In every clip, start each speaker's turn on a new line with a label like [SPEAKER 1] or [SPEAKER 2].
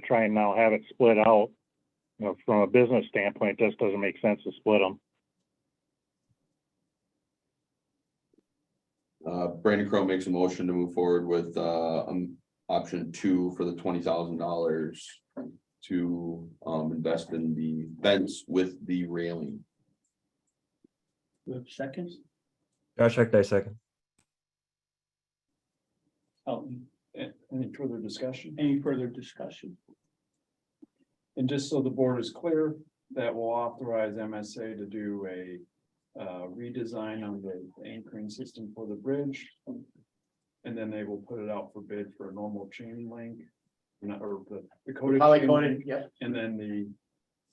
[SPEAKER 1] to try and now have it split out. You know, from a business standpoint, it just doesn't make sense to split them.
[SPEAKER 2] Uh, Brandon Crowe makes a motion to move forward with, uh, um, option two for the twenty thousand dollars. To, um, invest in the fence with the railing.
[SPEAKER 3] We have seconds?
[SPEAKER 4] Josh Hector, second.
[SPEAKER 3] Elton, a- any further discussion? Oh, Any further discussion?
[SPEAKER 5] And just so the board is clear, that will authorize MSA to do a uh, redesign on the anchoring system for the bridge. And then they will put it out for bid for a normal chain link, not- or the the coated. chain
[SPEAKER 3] Polycoded,
[SPEAKER 5] link,
[SPEAKER 3] yep.
[SPEAKER 5] And then the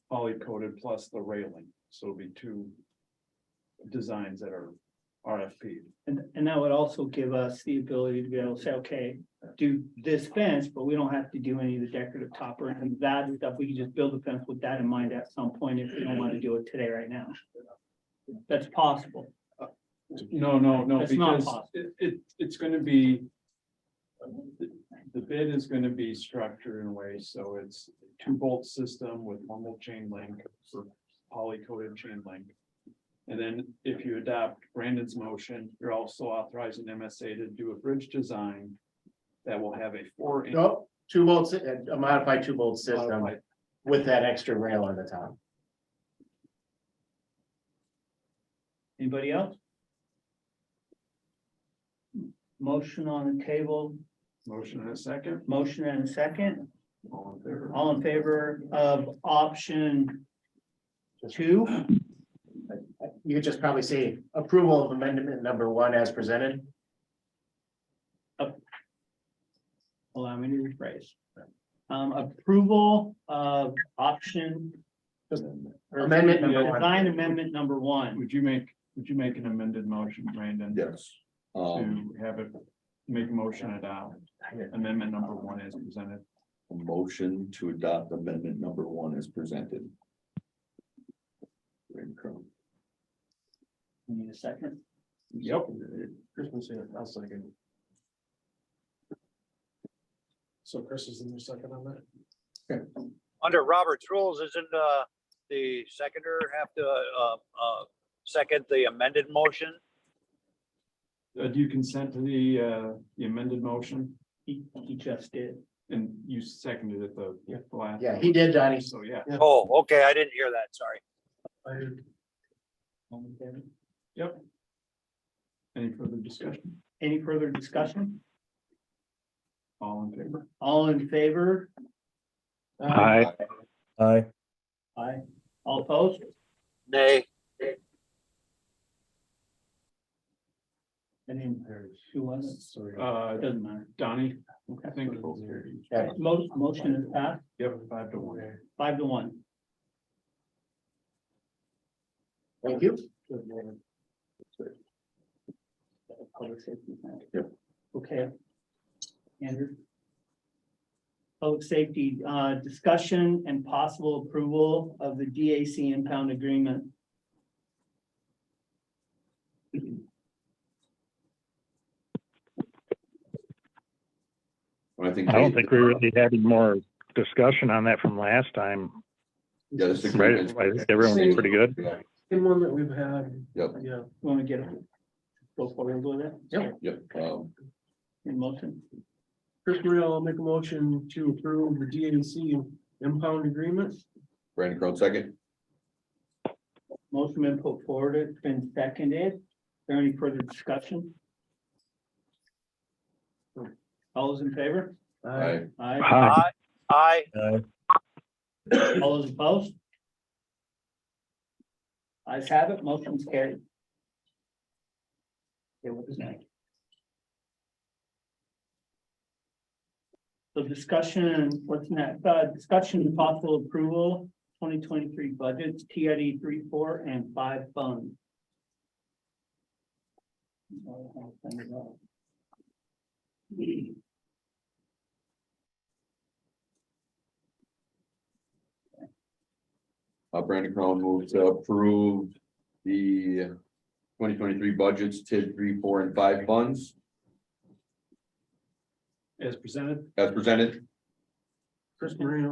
[SPEAKER 5] poly coated plus the railing, so it'll be two designs that are RFP.
[SPEAKER 3] And, and that would also give us the ability to be able to say, okay, do this fence, but we don't have to do any of the decorative topper and that stuff. We can just build a fence with that in mind at some point if we don't want to do it today right now. That's possible.
[SPEAKER 5] No, no, no,
[SPEAKER 3] That's not
[SPEAKER 5] because
[SPEAKER 3] possible.
[SPEAKER 5] it, it, it's gonna be. the- The bid is gonna be structured in a way, so it's two bolt system with normal chain link for poly coated chain link. And then if you adopt Brandon's motion, you're also authorizing MSA to do a bridge design. That will have a four. inch
[SPEAKER 6] No, two volts, a modified two volt system
[SPEAKER 5] modified-
[SPEAKER 6] with that extra rail on the top.
[SPEAKER 3] Anybody else? Motion on the table,
[SPEAKER 5] Motion in a second.
[SPEAKER 3] motion and a second.
[SPEAKER 5] All in favor?
[SPEAKER 3] All in favor of option two?
[SPEAKER 6] You could just probably say approval of amendment number one as presented.
[SPEAKER 3] Allow me to rephrase. Um, approval of option. or
[SPEAKER 6] Amendment number one.
[SPEAKER 3] Design amendment number one.
[SPEAKER 5] Would you make, would you make an amended motion, Brandon?
[SPEAKER 2] Yes. Um,
[SPEAKER 5] To have it, make a motion adopt amendment number one as presented.
[SPEAKER 2] a motion to adopt amendment number one is presented. Brandon Crowe.
[SPEAKER 3] We Need a second.
[SPEAKER 5] Yep.
[SPEAKER 6] So Chris is in the second on that?
[SPEAKER 7] under Robert's rules, isn't, uh, the seconder have to, uh, uh, second the amended motion?
[SPEAKER 5] Uh, do you consent to the, uh, the amended motion?
[SPEAKER 3] He, he just did.
[SPEAKER 5] And you seconded it the, the last.
[SPEAKER 6] Yeah, he did, Donnie.
[SPEAKER 5] So, yeah.
[SPEAKER 7] Oh, okay, I didn't hear that, sorry.
[SPEAKER 3] All in favor?
[SPEAKER 5] Yep. Any further discussion?
[SPEAKER 3] Any further discussion?
[SPEAKER 5] All in favor?
[SPEAKER 3] All in favor?
[SPEAKER 1] Aye.
[SPEAKER 4] Aye.
[SPEAKER 3] Aye. All opposed?
[SPEAKER 7] Nay,
[SPEAKER 3] And then who was it? Sorry.
[SPEAKER 5] Uh,
[SPEAKER 3] Doesn't matter.
[SPEAKER 5] Donnie, I
[SPEAKER 3] Okay.
[SPEAKER 5] think.
[SPEAKER 6] Yeah.
[SPEAKER 3] Most, motion is passed,
[SPEAKER 5] Yep, five to one.
[SPEAKER 3] five to one.
[SPEAKER 6] Thank you.
[SPEAKER 3] Public safety plan.
[SPEAKER 2] Yep.
[SPEAKER 3] Okay. Andrew? Public safety, uh, discussion and possible approval of the DAC impound agreement.
[SPEAKER 2] I think.
[SPEAKER 1] I don't think we really had any more discussion on that from last time,
[SPEAKER 2] Yeah, this
[SPEAKER 1] right?
[SPEAKER 2] agreement.
[SPEAKER 1] I think everyone was pretty good.
[SPEAKER 2] Yeah,
[SPEAKER 6] Same one that we've had,
[SPEAKER 2] Yep,
[SPEAKER 6] yeah.
[SPEAKER 3] You Want to get, go forward with it?
[SPEAKER 6] Yep.
[SPEAKER 2] yep, um,
[SPEAKER 3] In motion,
[SPEAKER 6] Chris Maria will make a motion to approve the DAC impound agreement.
[SPEAKER 2] Brandon Crowe second,
[SPEAKER 3] motion been put forward, it's been seconded. Is there any further discussion? All those in favor?
[SPEAKER 2] aye.
[SPEAKER 3] Aye.
[SPEAKER 1] Aye.
[SPEAKER 7] aye, aye,
[SPEAKER 4] Aye.
[SPEAKER 3] All those opposed? Eyes have it, motion's carried. Okay, what is next? So discussion, what's next, uh, discussion and possible approval, twenty twenty-three budgets, TID three, four, and five funds.
[SPEAKER 2] Uh, Brandon Crowe moves to approve the twenty twenty-three budgets, TID three, four, and five funds
[SPEAKER 5] As presented,
[SPEAKER 2] as presented.
[SPEAKER 5] Chris Marino